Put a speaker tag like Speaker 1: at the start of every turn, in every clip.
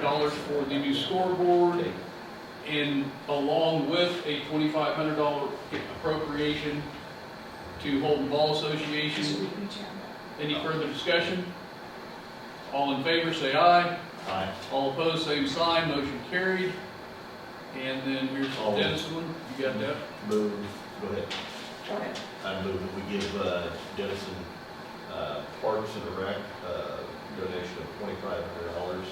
Speaker 1: dollars for the new scoreboard, and along with a twenty-five hundred dollar appropriation to Holden Ball Association. Any further discussion? All in favor, say aye.
Speaker 2: Aye.
Speaker 1: All opposed, same sign, motion carried. And then here's the
Speaker 2: All-
Speaker 1: Dennis one, you got that?
Speaker 2: Move, go ahead.
Speaker 3: Go ahead.
Speaker 2: I move that we give uh, Dennison uh, Parks and Rec uh, donation of twenty-five hundred dollars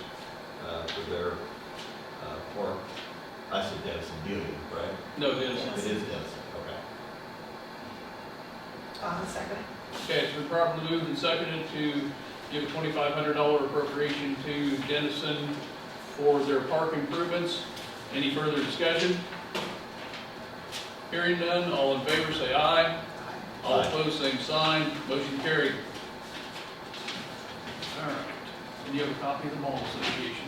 Speaker 2: for their uh, park. I said Dennison Dealey, right?
Speaker 1: No, Dennis.
Speaker 2: It is Dennison, okay.
Speaker 3: Uh, second.
Speaker 1: Okay, it's been properly moved and seconded to give a twenty-five hundred dollar appropriation to Dennison for their park improvements. Any further discussion? Hearing none, all in favor say aye. All
Speaker 2: Aye.
Speaker 1: opposed, same sign, motion carried. All right, and you have a copy of the mall association?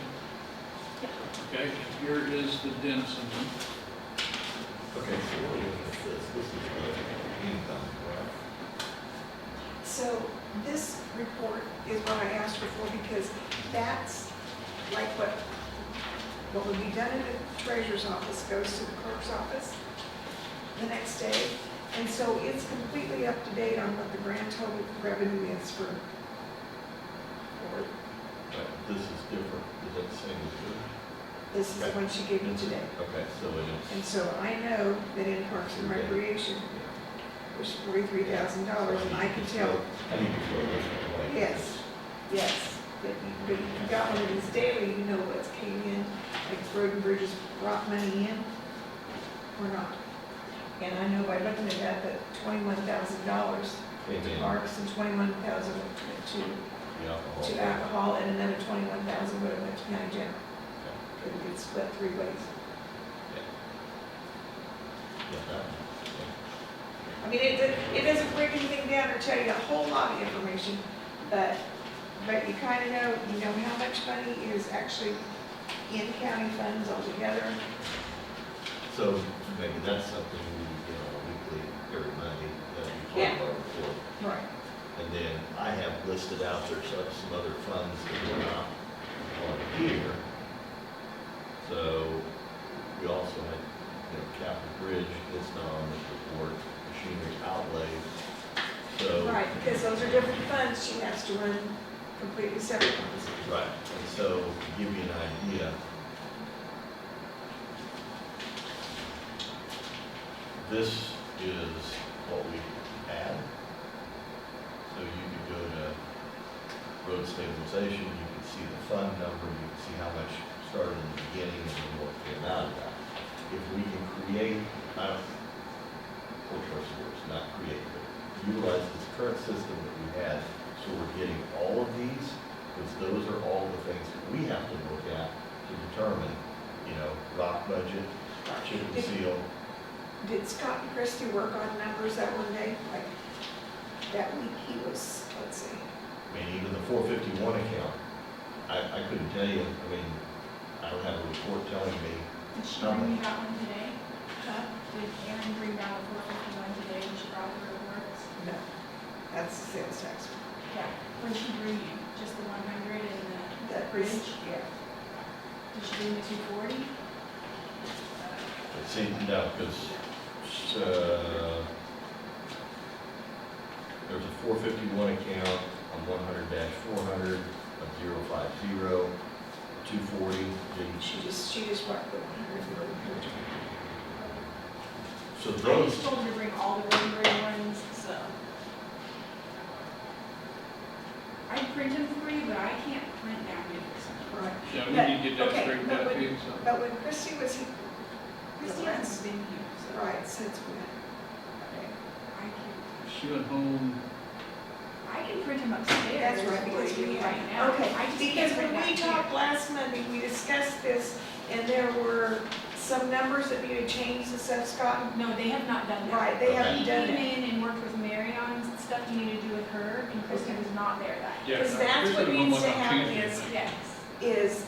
Speaker 1: Okay, here is the Dennison one.
Speaker 2: Okay, so what is this? This is the income, right?
Speaker 3: So this report is what I asked her for because that's like what, what would be done in the treasurer's office goes to the clerk's office the next day. And so it's completely up to date on what the grand total revenue is for, for,
Speaker 2: But This is different, is that the same as
Speaker 3: this is the one she
Speaker 2: yours?
Speaker 3: gave me today.
Speaker 2: Okay, so it
Speaker 3: And so I know that in Parks and Recreation,
Speaker 2: is.
Speaker 3: there's forty-three thousand dollars and I can tell
Speaker 2: I need to throw this away.
Speaker 3: Yes, yes, but you, but you got one of these daily, you know what's came in, like Road and Bridges brought money in or not. And I know by looking at that, that twenty-one thousand dollars to
Speaker 2: Amen.
Speaker 3: parks and twenty-one thousand to,
Speaker 2: The alcohol.
Speaker 3: to alcohol and another twenty-one thousand would have went to county general. It would get split three ways.
Speaker 2: Yeah, that one. Yeah.
Speaker 3: I mean, it, do- it doesn't break anything down or tell you a whole lot of information, but, but you kind of know, you know how much money is actually in county funds altogether.
Speaker 2: So maybe that's something we, you know, weekly, every Monday, that we
Speaker 3: Yeah.
Speaker 2: talk about before.
Speaker 3: Right.
Speaker 2: And then I have listed out there some, some other funds that were not on here. So we also had, you know, Capitol Bridge, it's not on this report, machinery outlay, so.
Speaker 3: Right, because those are different funds, she has to run completely separate ones.
Speaker 2: Right, and so to give you an idea. This is what we had. So you could go to road stabilization, you could see the fund number, you can see how much started in the beginning and then what came out of that. If we can create, I don't, poor choice of words, not create, but utilize this current system that we had, so we're getting all of these, because those are all the things that we have to look at to determine, you know, rock budget, chip and seal,
Speaker 3: Did Scott and Christie work on numbers that one day? Like, that week he was, let's see,
Speaker 2: I mean, even the four fifty-one account, I, I couldn't tell you, I mean, I don't have a report telling me,
Speaker 4: Did she bring you that one today?
Speaker 3: huh?
Speaker 4: Did Erin bring that report with you one today when she brought the reports?
Speaker 3: No, that's the sales tax.
Speaker 4: Yeah. What did she bring you? Just the one hundred and the?
Speaker 3: That
Speaker 4: bridge?
Speaker 3: bridge, yeah.
Speaker 4: Did she bring the two forty?
Speaker 2: but see, no, because, uh, there's a four fifty-one account on one hundred four hundred of zero five zero, two forty, didn't
Speaker 3: She just, she just worked the one hundred.
Speaker 2: So
Speaker 4: I
Speaker 2: those,
Speaker 4: just told her to bring all the Rodenberry ones, so. I print them for you, but I can't print that many.
Speaker 3: Right.
Speaker 1: Yeah, we need to get
Speaker 3: But-
Speaker 1: that
Speaker 3: okay,
Speaker 1: straightened
Speaker 3: but
Speaker 1: out
Speaker 3: when-
Speaker 1: too, so.
Speaker 3: But when Christie was, he-
Speaker 4: Christie hasn't been here, so I
Speaker 3: right, since when? Okay.
Speaker 4: can,
Speaker 1: She went home,
Speaker 4: I can print them upstairs.
Speaker 3: That's right, because
Speaker 4: for you
Speaker 3: we
Speaker 4: Right
Speaker 3: have,
Speaker 4: now.
Speaker 3: okay,
Speaker 4: I just
Speaker 3: because
Speaker 4: can't
Speaker 3: when
Speaker 4: print
Speaker 3: we
Speaker 4: that here.
Speaker 3: talked last Monday, we discussed this, and there were some numbers that needed changed and stuff, Scott.
Speaker 4: No, they have not done that.
Speaker 3: Right, they haven't
Speaker 4: He
Speaker 3: done
Speaker 4: came
Speaker 3: it.
Speaker 4: in and worked with Mary on stuff he needed to do with her, and Kristen was not there that
Speaker 1: yeah. uh,
Speaker 4: day.
Speaker 3: Because
Speaker 1: no,
Speaker 3: that's
Speaker 1: Chris
Speaker 3: what
Speaker 1: went home
Speaker 3: needs to
Speaker 1: like on
Speaker 3: happen
Speaker 1: Tuesday,
Speaker 3: is-
Speaker 1: I think.
Speaker 4: Yes.
Speaker 3: Is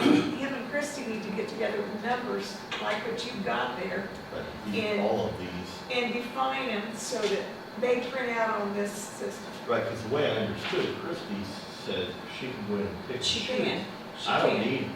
Speaker 3: him and Christie need to get together with numbers like what you've got there
Speaker 2: but the-
Speaker 3: In-
Speaker 2: all of these,
Speaker 3: and define them so that they print out on this system.
Speaker 2: right, because the way I understood, it, Christie said she can go in and pick. and
Speaker 3: She
Speaker 2: choose.
Speaker 3: can. She
Speaker 2: I don't
Speaker 3: can.
Speaker 2: need